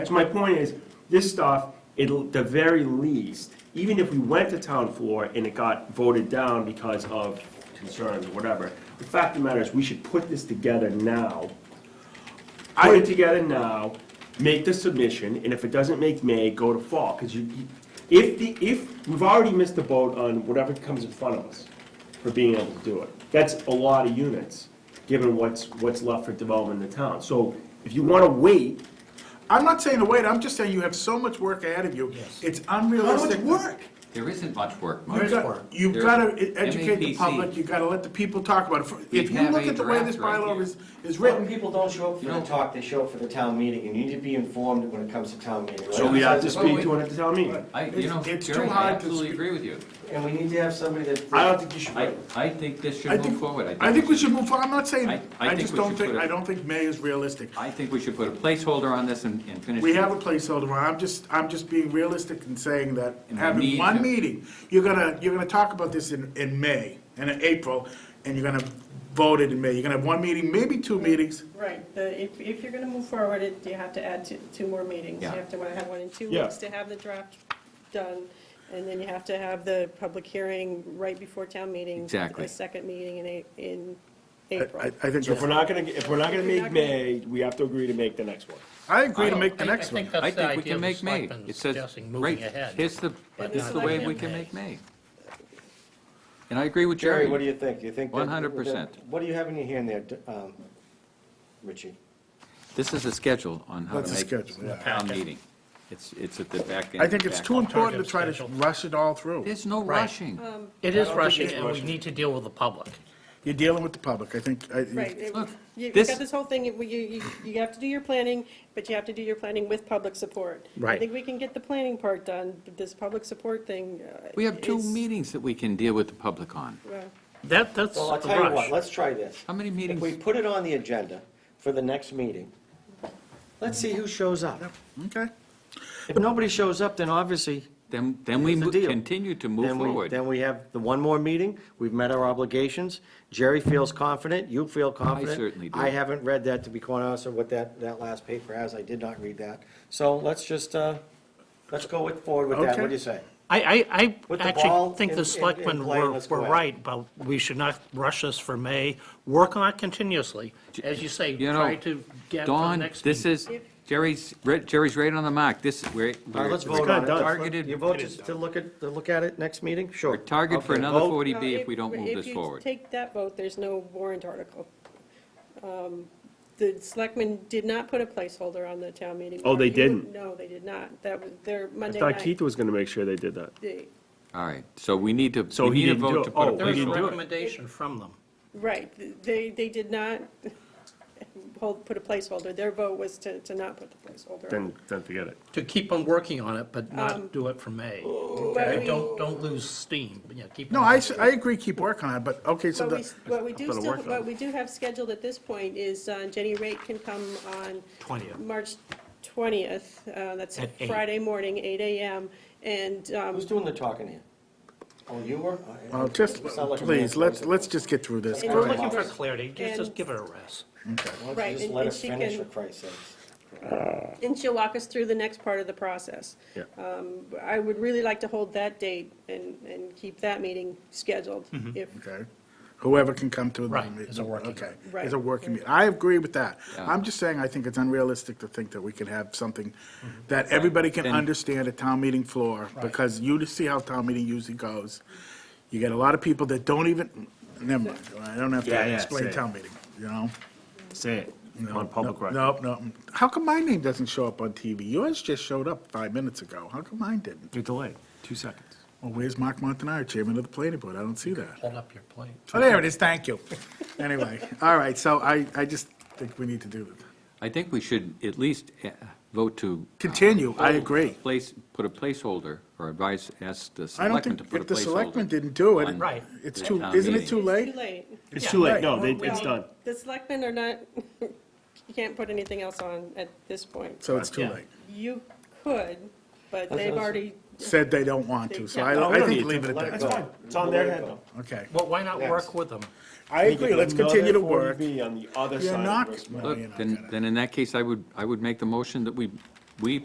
That's my point is, this stuff, it'll, the very least, even if we went to town floor and it got voted down because of concerns or whatever, the fact of the matter is, we should put this together now. Put it together now, make the submission, and if it doesn't make May, go to fall, because you, you- if the, if, we've already missed the boat on whatever comes in front of us for being able to do it. That's a lot of units, given what's, what's left for development in the town. So if you want to wait, I'm not saying to wait, I'm just saying you have so much work ahead of you. It's unrealistic. work? There isn't much work, You've Mike. got, you've There- got to educate the MAPC. public, you've got to let the people talk about it. We If you have look a at the way this draft right bylaw here. is, is When written, people don't show up for You the know- talk, they show up for the town meeting, and you need to be informed when it comes to town meeting. so right? we have to Well, speak we- to it at the town meeting. I, you It's- know, it's too Jerry, I hard to absolutely speak. agree with you. And we need to have somebody that. I don't think you should I, wait. I think this I should move think, forward. I think we should move forward, I'm not saying, I- I I think just we don't should think, put it- I don't think May is realistic. I think we should put a placeholder on this and, and finish. We it. have a placeholder, I'm just, I'm just being realistic and saying that And we having need one to- meeting, you're gonna, you're gonna talk about this in, in May and in April, and you're gonna vote it in May. You're gonna have one meeting, maybe two meetings. Right, the, if, if you're gonna move forward, it, you have to add two, two more meetings. You Yeah. have to wanna have one in two Yeah. weeks to have the draft done, and then you have to have the public hearing right before town meeting. Exactly. A second meeting in, A- in I, I- April. I think, So if we're that's- not gonna, if we're not gonna We're make not gonna- May, we have to agree to make the next one. I agree to make the next I one. think I that's the think we idea can of the make May. selectmen It says, suggesting right, moving ahead. here's the, but here's not the way in we can May. make May. And I agree with Jerry, what do Jerry. you think? You think? that- 100%. What do you have in your hand there, um, Richie? This is a schedule on how to That's a make schedule, yeah. a town meeting. It's, it's at the back end. I think it's back too end. important to try to rush it all through. There's no rushing. It is I don't think rushing, it's and we rushing. need to deal with the public. You're dealing with the public, I think. I- Right, it- Look, you, you this- got this whole thing, you, you, you have to do your planning, but you have to do your planning with public support. I Right. think we can get the planning part done, but this public support thing. uh, We have two is- meetings that we can deal with the public on. well, That, that's Well, a I'll tell you what, rush. let's try this. How many If meetings? we put it on the agenda for the next meeting, let's see who shows up. Okay. If nobody shows up, then obviously, Then, then we Here's the mo- deal. continue to move Then we- forward. Then we have the one more meeting, we've met our obligations, Jerry feels confident, you feel confident. certainly do. I haven't read that, to be quite honest, or what that, that last paper has, I did not read that. So let's just, uh, let's go with- forward with that, what do you say? I, I, I With the ball actually think in- in- the selectmen in play, were, let's go were at it. right, but we should not rush this for May. Work on it continuously. As you say, You know, try to get to the Dawn, next this meeting. is, Jerry's, re- Jerry's right on the mark. This, we're, All right, we're let's vote kinda on it. done. Targeted- You vote to to look at, to look at it next meeting, sure. we're targeted for Okay, another vote. 40B Well, if we don't move this forward. If you take that vote, there's no warrant article. Um, The selectmen did not put a placeholder on the town meeting. Oh, they warrant. You- didn't? No, they did not. That was their I Monday thought Keith night. was gonna make sure they did that. they- All right, so we need to, So we he need a didn't do vote it. to put a Oh, There was a didn't do it. placeholder. recommendation from them. Right, they, they did not hold, put a placeholder. Their vote was to, to not put the placeholder on. Then, then forget it. to keep on working on it, but Um, not do it for May. oh. But we- Don't, don't lose steam, but, yeah, keep. No, on I, s- working. I agree, keep working on it, but, okay, so What we, the, what we do gonna still, work on it. what we do have scheduled at this point is uh, Jenny Raitt can come on. 20th. March twentieth, uh, that's At eight. Friday morning, eight AM, and, um, Who's doing the talking here? Oh, you were? uh, just, It's not like a please, man. let's, let's just get through this. And We're Go ahead. looking for clarity, just, just give it a rest. Why don't Right, you just and- let and us she finish, for can- Christ's sakes? and she'll walk us through the next part of the process. Um, Yeah. I would really like to hold that date and, and keep that meeting scheduled, Mm-hmm. if, Okay. Whoever can come to the Right, meeting. it's a working- Okay, Right. it's a working meeting. I agree with that. Yeah. I'm just saying, I think it's unrealistic to think that we can have something Mm-hmm. that everybody can Then- understand at town meeting floor, because you just see how town meeting usually goes. You get a lot of people that don't even, never mind, I don't have Yeah, to yeah, say explain it. town meeting, you know? Say it on public record. No, no. How come my name doesn't show up on TV? Yours just showed up five minutes ago. How come mine didn't? You're delayed, two seconds. Well, where's Mark Montanaro, chairman of the planning board? I don't see that. Hold up your plate. Oh, there it is, thank you. Anyway, all right, so I, I just think we need to do that. I think we should at least uh, vote to. uh, Continue, I hold- agree. Place, put a placeholder, or advise, ask the I don't selectmen to think, put a if placeholder. the selectmen didn't do it, Right. it's the too, town isn't it meeting. too It's late? too late. It's too late, Right. no, they, We- it's done. The selectmen are not, you can't put anything else on at this point. So it's too Yeah. late. You could, but they've already, Said they don't want to, so Yeah. No, I, we I don't need think to. leave it Let at go. that. fine. It's on We'll their let it head, go. though. Okay. Well, why not Next. work with them? I agree, let's continue to work. Be on the other You're side of not, this. no, Look, you're not then, gonna. then in that case, I would, I would make the motion that we we